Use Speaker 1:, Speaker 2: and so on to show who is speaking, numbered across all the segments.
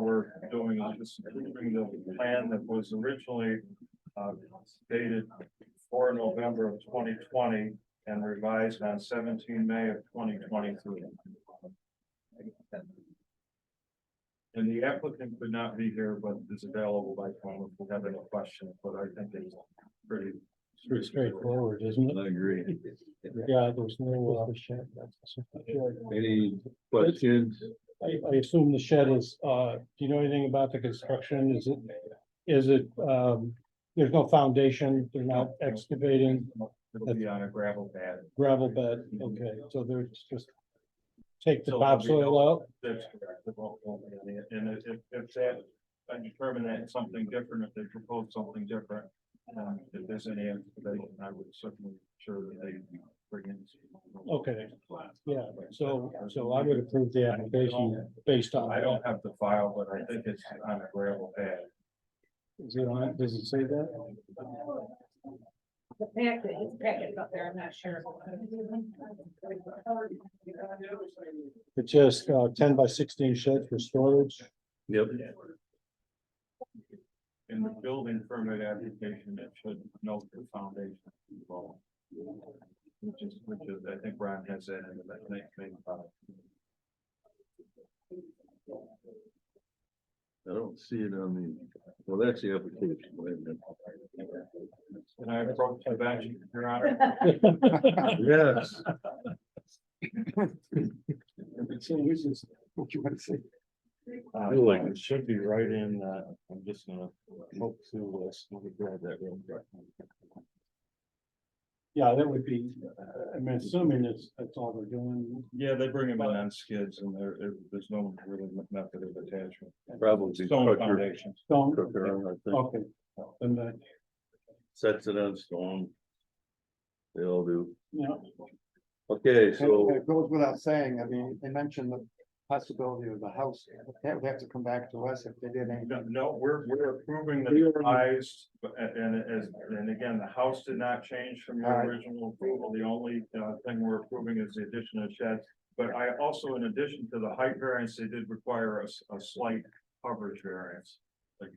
Speaker 1: we're doing is just moving the plan that was originally uh, dated for November of twenty twenty and revised on seventeen May of twenty twenty-three. And the applicant could not be here, but is available by phone if we have any questions, but I think it's pretty.
Speaker 2: Pretty straightforward, isn't it?
Speaker 3: I agree.
Speaker 2: Yeah, there's no, uh.
Speaker 3: Any questions?
Speaker 2: I, I assume the shed is, uh, do you know anything about the construction? Is it, is it, um, there's no foundation, they're not excavating
Speaker 1: It'll be on a gravel pad.
Speaker 2: gravel bed, okay, so they're just take the topsoil out?
Speaker 1: That's correct. It won't- won't be any- And if, if- if that, I determine that it's something different, if they propose something different, um, if there's any, explanation, I would certainly sure that they bring in.
Speaker 2: Okay, yeah, so, so I would approve the application based on.
Speaker 1: I don't have the file, but I think it's on a gravel pad.
Speaker 2: Is it on, does it say that?
Speaker 4: The fact that his packet's up there, I'm not sure.
Speaker 2: It's just, uh, ten by sixteen shed for storage,
Speaker 3: Yep.
Speaker 1: In the building permit application, it should note the foundation involved. Which is, which is, I think Ron has that in the next thing about it.
Speaker 3: I don't see it on the, well, that's the application. wait a minute.
Speaker 1: And I approached the bench, your honor.
Speaker 3: Yes,
Speaker 1: Uh,
Speaker 3: Feel like-
Speaker 1: it should be right in, uh, I'm just gonna hope to, uh, let me grab that real quick.
Speaker 2: Yeah, that would be, uh, I'm assuming it's, that's all they're doing.
Speaker 1: Yeah, they bring them in on skids and there, there- there's no really method of attachment.
Speaker 3: probably.
Speaker 1: Stone
Speaker 3: Tucker-
Speaker 1: foundations.
Speaker 2: Stone,
Speaker 3: Tucker, I think,
Speaker 2: okay. And that,
Speaker 3: Sets it on stone. They all do.
Speaker 2: you know,
Speaker 3: Okay,
Speaker 5: It
Speaker 3: so,
Speaker 5: it goes without saying, I mean, they mentioned the possibility of the house, that would have to come back to us if they did anything.
Speaker 1: No, No, we're, we're approving the
Speaker 2: We already-
Speaker 1: revised, but- and, and as, and again, the house did not change from the
Speaker 5: All right.
Speaker 1: original approval. The only, uh, thing we're approving is the addition of sheds. But I also, in addition to the height variance, they did require a, s- a slight coverage variance. Like,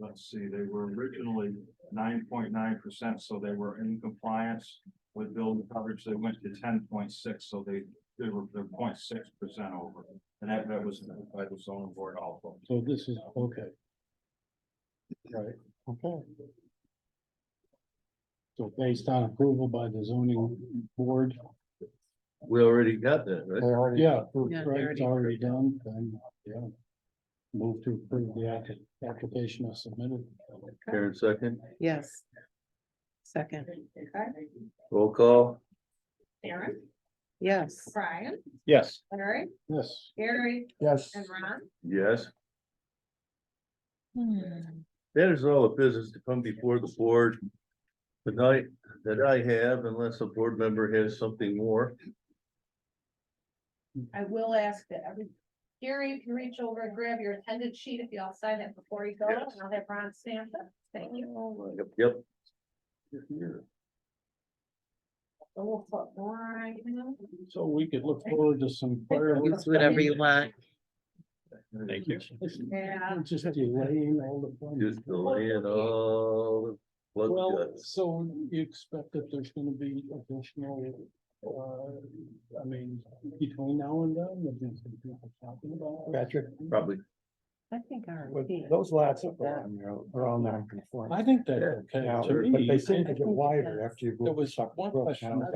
Speaker 1: let's see, they were originally nine point nine percent, so they were in compliance with building coverage. They went to ten point six, so they, they were, they're 0.6 percent over. And that, that was by the zoning board also.
Speaker 2: so this is, okay. Right, okay. So based on approval by the zoning board,
Speaker 3: we already got that,
Speaker 5: They
Speaker 3: right?
Speaker 5: already.
Speaker 2: yeah, approved,
Speaker 4: Yeah, they
Speaker 2: right, it's already
Speaker 4: already
Speaker 2: done, then, yeah. Move to approve the applic- application as submitted.
Speaker 3: Karen second,
Speaker 4: Yes. Second.
Speaker 3: roll call,
Speaker 4: Aaron? Yes. Brian,
Speaker 2: Yes.
Speaker 4: Larry,
Speaker 2: Yes.
Speaker 4: Gary,
Speaker 5: Yes.
Speaker 4: and Ron?
Speaker 3: yes. That is all the business to come before the board tonight that I have, unless a board member has something more.
Speaker 4: I will ask that every, Gary, if you reach over and grab your attendance sheet, if y'all sign it before you go, and
Speaker 3: Yes.
Speaker 4: I'll have Ron stamp it. Thank you.
Speaker 3: Yep, Yep.
Speaker 4: So we'll put Brian in.
Speaker 2: So we could look forward to some fireworks.
Speaker 6: It's whatever you want.
Speaker 1: Thank
Speaker 4: Yeah.
Speaker 2: Just delaying all the. fun.
Speaker 3: Just the land, all the
Speaker 2: Well,
Speaker 3: blood guts.
Speaker 2: so you expect that there's gonna be additional, uh, I mean, between now and then, there's been some people talking about. it.
Speaker 5: Patrick,
Speaker 3: probably.
Speaker 6: I think our.
Speaker 5: with those lots up around there are all non-conforming.
Speaker 2: I think that's okay.
Speaker 5: Now,
Speaker 2: To
Speaker 5: But
Speaker 2: me,
Speaker 5: they seem to
Speaker 2: it-
Speaker 5: get wider after you. go
Speaker 2: There was
Speaker 5: Sucker
Speaker 2: one
Speaker 5: Brook
Speaker 2: question
Speaker 5: Town.